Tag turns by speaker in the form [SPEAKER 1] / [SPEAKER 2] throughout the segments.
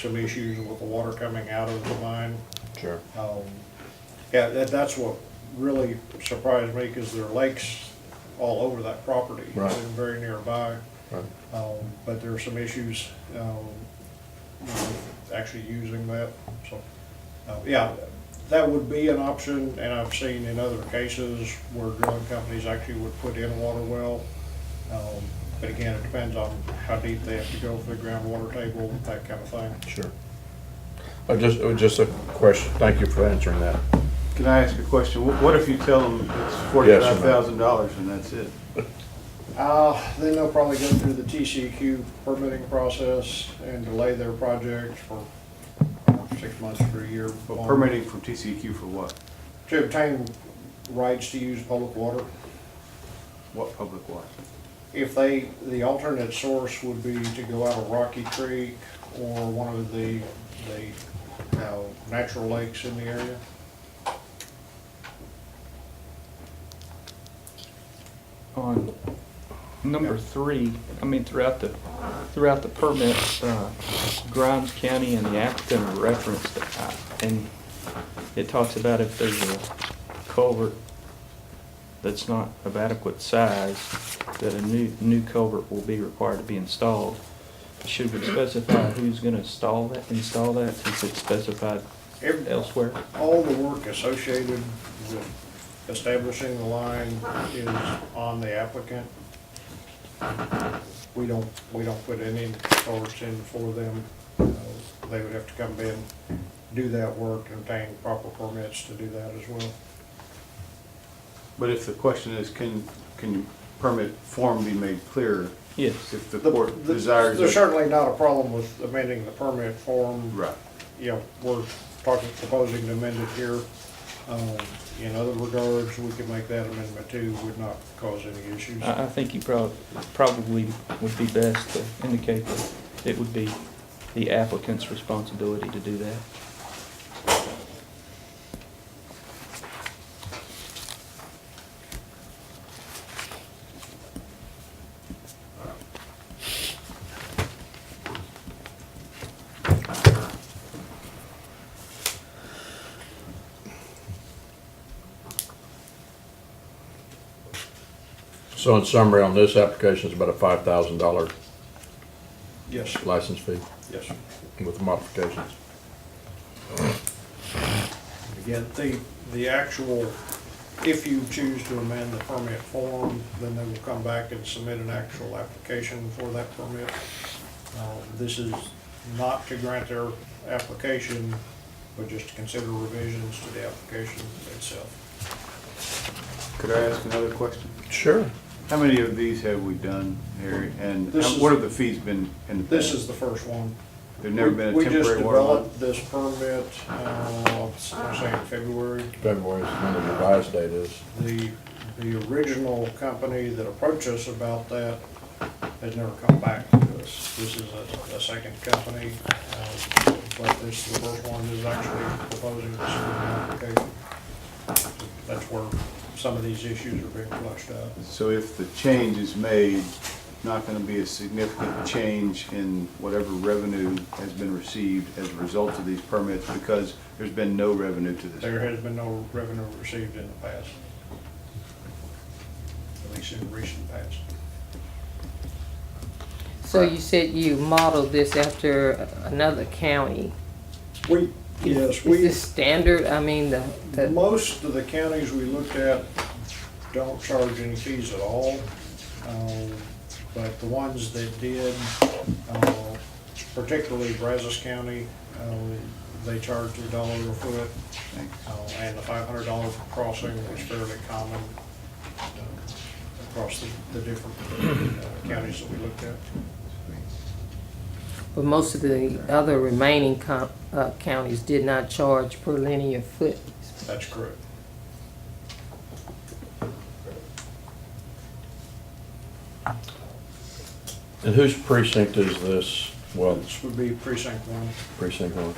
[SPEAKER 1] some issues with the water coming out of the mine.
[SPEAKER 2] Sure.
[SPEAKER 1] Um, Yeah, that, that's what really surprised me, because there are lakes all over that property.
[SPEAKER 2] Right.
[SPEAKER 1] And very nearby.
[SPEAKER 2] Right.
[SPEAKER 1] Um, But there are some issues, um, with actually using that, so, uh, yeah, that would be an option, and I've seen in other cases where drilling companies actually would put in a water well. Um, But again, it depends on how deep they have to go for the groundwater table, that kind of thing.
[SPEAKER 2] Sure. I just, it was just a question, thank you for answering that.
[SPEAKER 3] Can I ask a question? Wh- What if you tell them it's forty-five thousand dollars and that's it?
[SPEAKER 1] Uh, then they'll probably go through the TCQ permitting process and delay their project for six months to a year.
[SPEAKER 3] Well, permitting from TCEQ for what?
[SPEAKER 1] To obtain rights to use public water.
[SPEAKER 3] What public water?
[SPEAKER 1] If they, the alternate source would be to go out of Rocky Creek or one of the, the, uh, natural lakes in the area.
[SPEAKER 4] on number three, I mean, throughout the, throughout the permit, uh, Grimes County and the applicant are referenced, uh, and it talks about if there's a culvert that's not of adequate size, that a new, new culvert will be required to be installed. Should we specify who's gonna install that, install that, since it's specified
[SPEAKER 1] Every-
[SPEAKER 4] elsewhere?
[SPEAKER 1] All the work associated with establishing the line is on the applicant. We don't, we don't put any source in for them. Uh, They would have to come in, do that work, and obtain proper permits to do that as well.
[SPEAKER 3] But if the question is, can, can your permit form be made clear
[SPEAKER 4] Yes,
[SPEAKER 3] if the
[SPEAKER 1] The-
[SPEAKER 3] court
[SPEAKER 1] the-
[SPEAKER 3] desires?
[SPEAKER 1] There's
[SPEAKER 3] it?
[SPEAKER 1] certainly not a problem with amending the permit form.
[SPEAKER 3] Right.
[SPEAKER 1] You know, we're talking, proposing to amend it here. Um, In other regards, we could make that amendment too, would not cause any issues.
[SPEAKER 4] I, I think you prob- probably would be best to indicate that it would be the applicant's responsibility to do that.
[SPEAKER 2] So in summary, on this application, it's about a five thousand dollar
[SPEAKER 1] Yes,
[SPEAKER 2] license fee
[SPEAKER 1] yes.
[SPEAKER 2] with modifications.
[SPEAKER 1] Again, the, the actual, if you choose to amend the permit form, then they will come back and submit an actual application for that permit. Uh, This is not to grant their application, but just to consider revisions to the application itself.
[SPEAKER 3] Could I ask another question?
[SPEAKER 2] Sure.
[SPEAKER 3] How many of these have we done, Harry? And
[SPEAKER 1] This
[SPEAKER 3] how-
[SPEAKER 1] is-
[SPEAKER 3] what have the fees been in the past?
[SPEAKER 1] This is the first one.
[SPEAKER 3] There've never been a
[SPEAKER 1] We- We just
[SPEAKER 3] temporary water line?
[SPEAKER 1] developed this permit, uh, I'm saying February.
[SPEAKER 2] February is when the revised date is.
[SPEAKER 1] The, the original company that approached us about that has never come back to us. This is a, a second company, um, but this, the first one is actually proposing this application. That's where some of these issues are being flushed out.
[SPEAKER 3] So if the change is made, not gonna be a significant change in whatever revenue has been received as a result of these permits, because there's been no revenue to this.
[SPEAKER 1] There has been no revenue received in the past, at least in recent past.
[SPEAKER 5] So you said you modeled this after another county.
[SPEAKER 1] We,
[SPEAKER 5] Is-
[SPEAKER 1] yes, we.
[SPEAKER 5] Is this standard? I mean, the, the,
[SPEAKER 1] Most of the counties we looked at don't charge any fees at all, um, but the ones that did, uh, particularly Brazos County, um, they charged a dollar a foot, uh, and the five hundred dollar crossing was fairly common uh, across the, the different uh, counties that we looked at.
[SPEAKER 5] but most of the other remaining com, uh, counties did not charge per linear foot.
[SPEAKER 1] That's correct.
[SPEAKER 2] And whose precinct is this? Well,
[SPEAKER 1] This would be precinct one.
[SPEAKER 2] precinct one.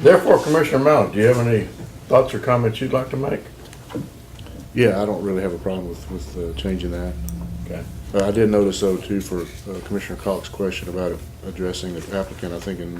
[SPEAKER 2] Therefore, Commissioner Mallon, do you have any thoughts or comments you'd like to make?
[SPEAKER 6] Yeah, I don't really have a problem with, with uh, changing that.
[SPEAKER 2] Okay.
[SPEAKER 6] Uh, I did notice though too for uh, Commissioner Cox's question about addressing the applicant, I think in